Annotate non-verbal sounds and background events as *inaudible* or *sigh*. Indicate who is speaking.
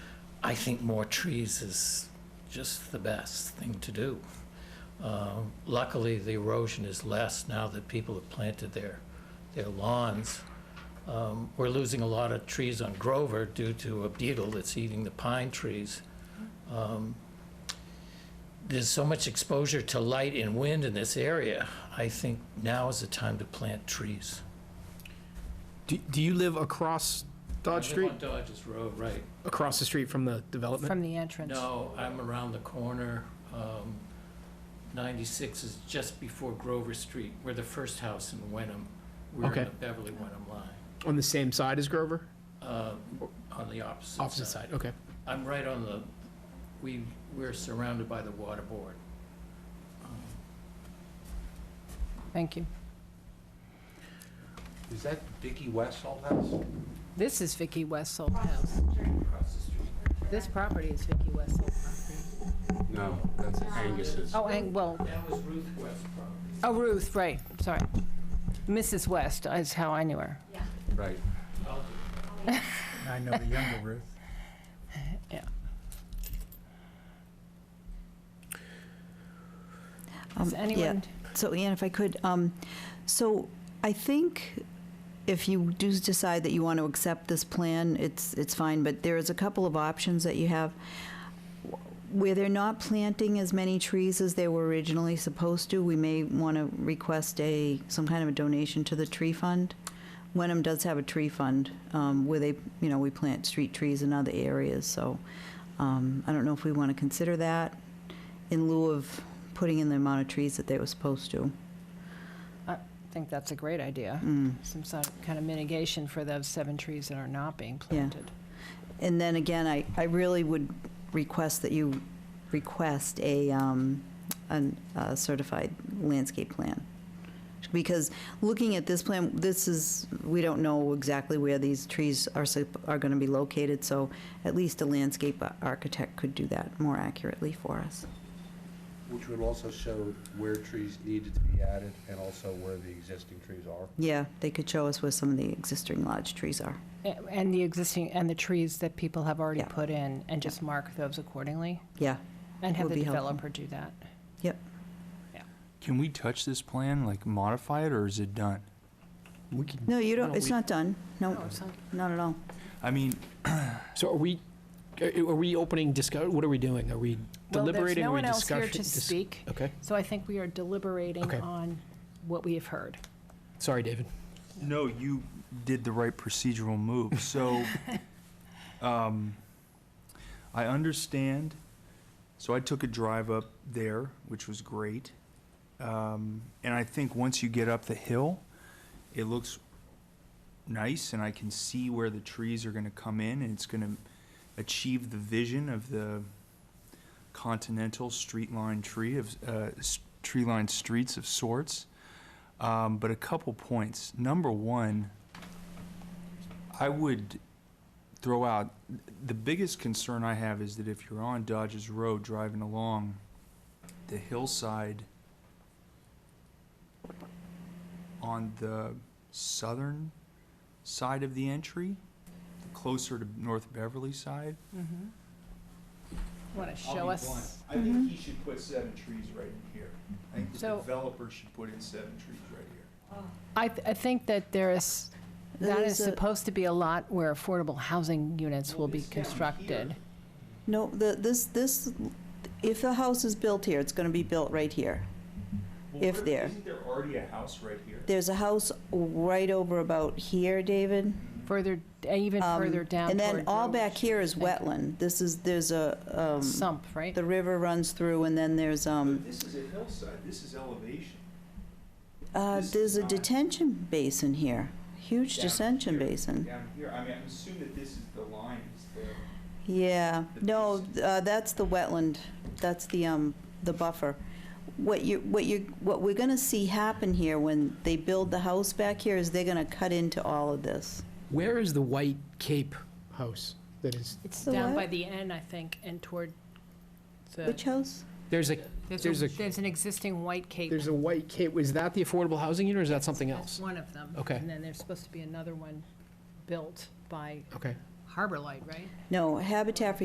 Speaker 1: I think more trees is just the best thing to do. Uh, Luckily, the erosion is less now that people have planted their, their lawns. Um, We're losing a lot of trees on Grover due to a beetle that's eating the pine trees. Um, There's so much exposure to light and wind in this area. I think now is the time to plant trees.
Speaker 2: Do, do you live across Dodge
Speaker 1: I live
Speaker 2: Street?
Speaker 1: on Dodge's Road, right.
Speaker 2: Across the street from the development?
Speaker 3: From the entrance.
Speaker 1: No, I'm around the corner. Um, 96 is just before Grover Street. We're the first house in Wenham. We're
Speaker 2: Okay.
Speaker 1: in the Beverly Wenham line,
Speaker 2: On the same side as Grover?
Speaker 1: uh, on the opposite side.
Speaker 2: Opposite side, okay.
Speaker 1: I'm right on the, we, we're surrounded by the water board.
Speaker 3: Thank you.
Speaker 4: Is that Vicky Westall house?
Speaker 3: This is Vicky Wessel's house. This property is Vicky Wessel's
Speaker 4: No, that's Angus's.
Speaker 3: property. Oh, and, well,
Speaker 1: That was Ruth West property.
Speaker 3: oh, Ruth, right, sorry. Mrs. West is how I knew her.
Speaker 4: Right.
Speaker 1: I'll
Speaker 5: *laughs* I know the younger Ruth.
Speaker 6: Um,
Speaker 3: Does
Speaker 6: yeah.
Speaker 3: anyone,
Speaker 6: So Ian, if I could, um, so I think if you do decide that you want to accept this plan, it's, it's fine, but there is a couple of options that you have. Where they're not planting as many trees as they were originally supposed to, we may want to request a, some kind of a donation to the tree fund. Wenham does have a tree fund, um, where they, you know, we plant street trees in other areas, so, um, I don't know if we want to consider that in lieu of putting in the amount of trees that they were supposed to.
Speaker 3: I think that's a great idea.
Speaker 6: Mm.
Speaker 3: Some sort of kind of mitigation for those seven trees that are not being planted.
Speaker 6: And then again, I, I really would request that you request a, um, an- a certified landscape plan. Because looking at this plan, this is, we don't know exactly where these trees are, sup- are gonna be located, so at least a landscape a- architect could do that more accurately for us.
Speaker 4: Which would also show where trees needed to be added and also where the existing trees are.
Speaker 6: Yeah, they could show us where some of the existing large trees are.
Speaker 3: A- And the existing, and the trees that people have already
Speaker 6: Yeah.
Speaker 3: put in, and just mark those accordingly,
Speaker 6: Yeah,
Speaker 3: and have
Speaker 6: Would
Speaker 3: the
Speaker 6: be helpful.
Speaker 3: developer do that.
Speaker 6: yep.
Speaker 5: Can we touch this plan, like modify it, or is it done?
Speaker 2: We can.
Speaker 6: No, you
Speaker 2: No,
Speaker 6: don't, it's
Speaker 2: we-
Speaker 6: not done, no,
Speaker 3: it's not.
Speaker 6: not at all.
Speaker 5: I mean,
Speaker 2: So are we, are are we opening discuss, what are we doing? Are we
Speaker 3: Well, there's
Speaker 2: deliberating?
Speaker 3: no
Speaker 2: Are we
Speaker 3: one else here
Speaker 2: discussion-
Speaker 3: to
Speaker 2: dis-
Speaker 3: speak,
Speaker 2: Okay,
Speaker 3: so I think we are deliberating
Speaker 2: Okay.
Speaker 3: on what we have heard.
Speaker 2: sorry, David.
Speaker 5: no, you did the right procedural move. So, um, I understand. So I took a drive up there, which was great. Um, and I think once you get up the hill, it looks nice, and I can see where the trees are going to come in, and it's going to achieve the vision of the continental street line tree of uh, tree lined streets of sorts. Um, but a couple points. Number one, I would throw out the biggest concern I have is that if you're on Dodges Road driving along the hillside on the southern side of the entry, closer to North Beverly side.
Speaker 3: Want to show us?
Speaker 5: I think he should put seven trees right in here. I think
Speaker 3: the So-
Speaker 5: developer should put in seven trees right here.
Speaker 3: I, th- I think that there is, that
Speaker 6: There
Speaker 3: is
Speaker 6: is a-
Speaker 3: supposed to be a lot where affordable housing units will be constructed.
Speaker 6: No, the, this, this, if the house is built here, it's gonna be built right here. If where- there- isn't
Speaker 5: there already a house right here?
Speaker 6: There's a house right over about here, David.
Speaker 3: Further, even
Speaker 6: um,
Speaker 3: further down
Speaker 6: And then
Speaker 3: toward
Speaker 6: all
Speaker 3: Grove
Speaker 6: back here is
Speaker 3: Street, I
Speaker 6: wetland. This is, there's a,
Speaker 3: think.
Speaker 6: um,
Speaker 3: Sump, right?
Speaker 6: the river runs through and then there's, um,
Speaker 5: This is a hillside, this is elevation.
Speaker 6: uh,
Speaker 5: This is
Speaker 6: there's a
Speaker 5: not-
Speaker 6: detention basin here. Huge
Speaker 5: Down
Speaker 6: detention
Speaker 5: here,
Speaker 6: basin.
Speaker 5: Down here, I mean, I assume that this is the line, is the,
Speaker 6: Yeah,
Speaker 5: The
Speaker 6: no, uh, that's the wetland, that's the, um, the buffer. What you, what you, what we're gonna see happen here when they build the house back here is they're gonna cut into all of this.
Speaker 2: Where is the White Cape house that is,
Speaker 3: It's
Speaker 6: The
Speaker 3: down
Speaker 6: what?
Speaker 3: by the end, I think, and toward the,
Speaker 6: Which house?
Speaker 2: there's a,
Speaker 3: there's
Speaker 2: there's
Speaker 3: a,
Speaker 2: a-
Speaker 3: there's an existing white cape.
Speaker 2: there's a White Cape, is that the affordable housing unit or is that something
Speaker 3: That's
Speaker 2: else?
Speaker 3: one of them.
Speaker 2: Okay.
Speaker 3: And then there's supposed to be another one built by
Speaker 2: Okay.
Speaker 3: Harbor Light, right?
Speaker 6: No, Habitat for